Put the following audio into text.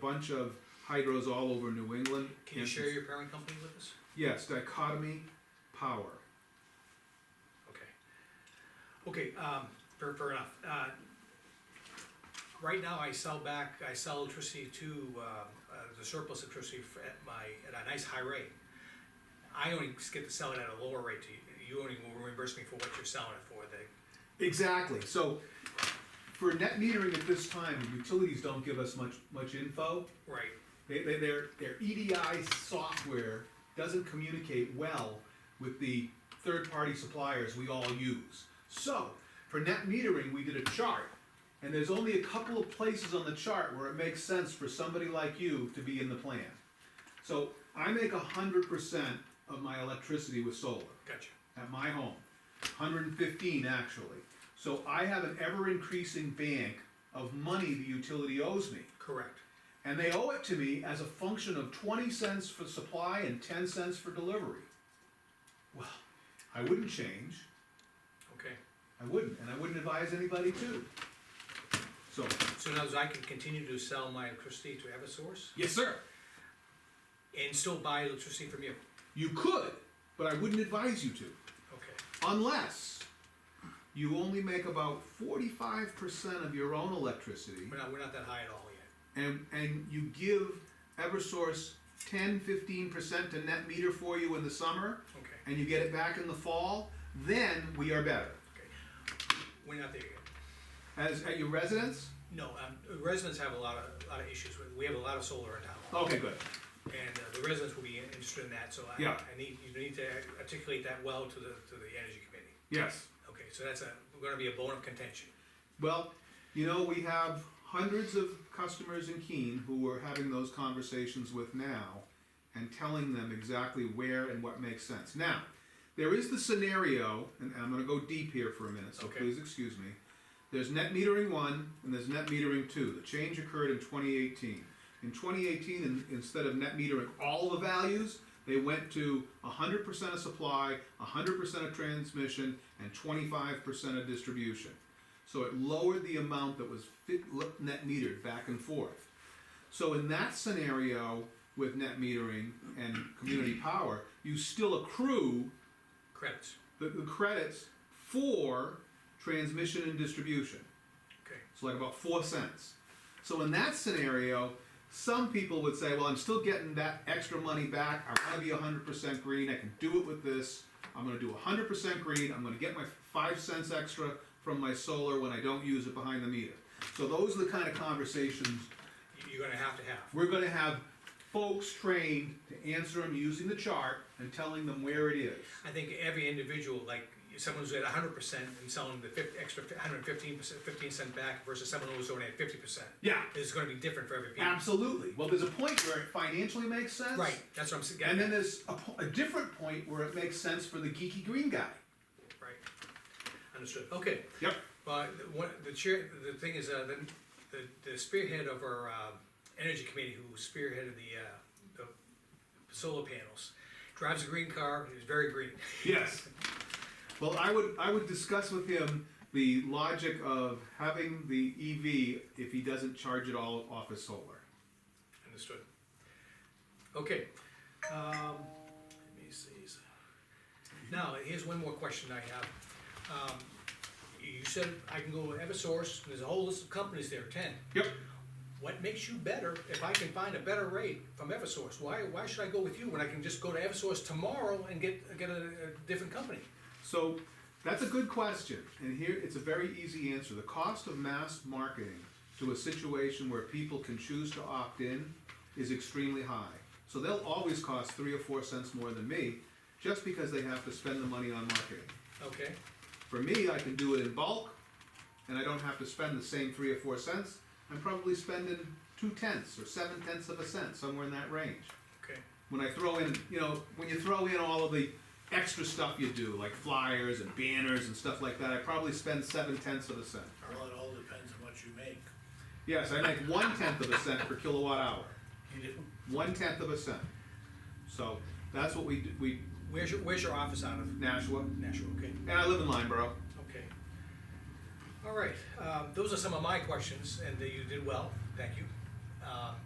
bunch of hydros all over New England. Can you and- share your parent company with us? Yes, dichotomy power. Okay. Okay, um, fair, fair enough. Uh, Right now, I sell back, I sell electricity to, uh, uh, the surplus electricity f- at my, at a nice high rate. I only get to sell it at a lower rate to you, you only will reimburse me for what you're selling it for, the, Exactly, so for net metering at this time, utilities don't give us much, much info. right, They, they, their, their EDI software doesn't communicate well with the third-party suppliers we all use. So, for net metering, we did a chart, and there's only a couple of places on the chart where it makes sense for somebody like you to be in the plan. So, I make hundred percent of my electricity with solar gotcha. at my home, hundred and fifteen actually. So I have an ever-increasing bank of money the utility owes me. Correct, And they owe it to me as a function of twenty cents for supply and ten cents for delivery. Well, I wouldn't change, okay. I wouldn't, and I wouldn't advise anybody to. So, So now, I can continue to sell my electricity to Eversource yes, sir. and still buy electricity from you? You could, but I wouldn't advise you to. Okay. Unless you only make about forty-five percent of your own electricity. We're not, we're not that high at all yet. and and you give Eversource 10 15 percent to net meter for you in the summer Okay, and you get it back in the fall, then we are better. okay. We're not there yet. As at your residence? No, um, residents have a lot of, a lot of issues with, we have a lot of solar in town, Okay, good. and uh, the residents will be interested in that, so I, Yeah. I need, you need to articulate that well to the, to the energy committee. Yes. Okay, so that's a, gonna be a bone of contention, Well, you know, we have hundreds of customers in Keene who we're having those conversations with now and telling them exactly where and what makes sense. Now, there is the scenario, and I'm gonna go deep here for a minute, so Okay. please excuse me. There's net metering one and there's net metering two. The change occurred in twenty eighteen. In twenty eighteen, in, instead of net metering all the values, they went to hundred percent of supply, hundred percent of transmission, and twenty-five percent of distribution. So it lowered the amount that was fit, l- net metered back and forth. So in that scenario with net metering and community power, you still accrue credits, the, the credits for transmission and distribution. okay, So like about four cents. So in that scenario, some people would say, well, I'm still getting that extra money back. I wanna be hundred percent green. I can do it with this. I'm gonna do hundred percent green. I'm gonna get my five cents extra from my solar when I don't use it behind the meter. So those are the kind of conversations You- you're gonna have to have. we're gonna have folks trained to answer them using the chart and telling them where it is. I think every individual, like, someone who's at hundred percent and selling the fif- extra hundred and fifteen percent, fifteen cent back versus someone who's only at fifty percent, Yeah. is gonna be different for every people. Absolutely. Well, there's a point where it financially makes sense. Right, that's what I'm saying. And then there's a, po- a different point where it makes sense for the geeky green guy. Right, understood, okay. Yep. But one, the chair, the thing is, uh, the, the- the spearhead of our, um, energy committee who spearheaded the, uh, the solar panels, drives a green car, he's very green. Yes. Well, I would, I would discuss with him the logic of having the EV if he doesn't charge it all off his solar. Understood. Okay, um, let me see. Now, here's one more question I have. Um, you said I can go with Eversource, there's a whole list of companies there, ten. Yep. What makes you better if I can find a better rate from Eversource? Why, why should I go with you when I can just go to Eversource tomorrow and get, get a, a different company? So that's a good question, and here it's a very easy answer. The cost of mass marketing to a situation where people can choose to opt in is extremely high. So they'll always cost three or four cents more than me just because they have to spend the money on marketing. Okay, For me, I can do it in bulk, and I don't have to spend the same three or four cents. I'm probably spending two tenths or seven tenths of a cent, somewhere in that range. okay, When I throw in, you know, when you throw in all of the extra stuff you do, like flyers and banners and stuff like that, I probably spend seven tenths of a cent. Well, it all depends on what you make. Yes, I make one tenth of a cent per kilowatt hour. You do. One tenth of a cent. So that's what we do, we where's your, where's your office out of? Nashua, Nashua, okay, and I live in Lineborough. okay. uh, All right, um, those are some of my questions, and uh, you did well, thank you. Um,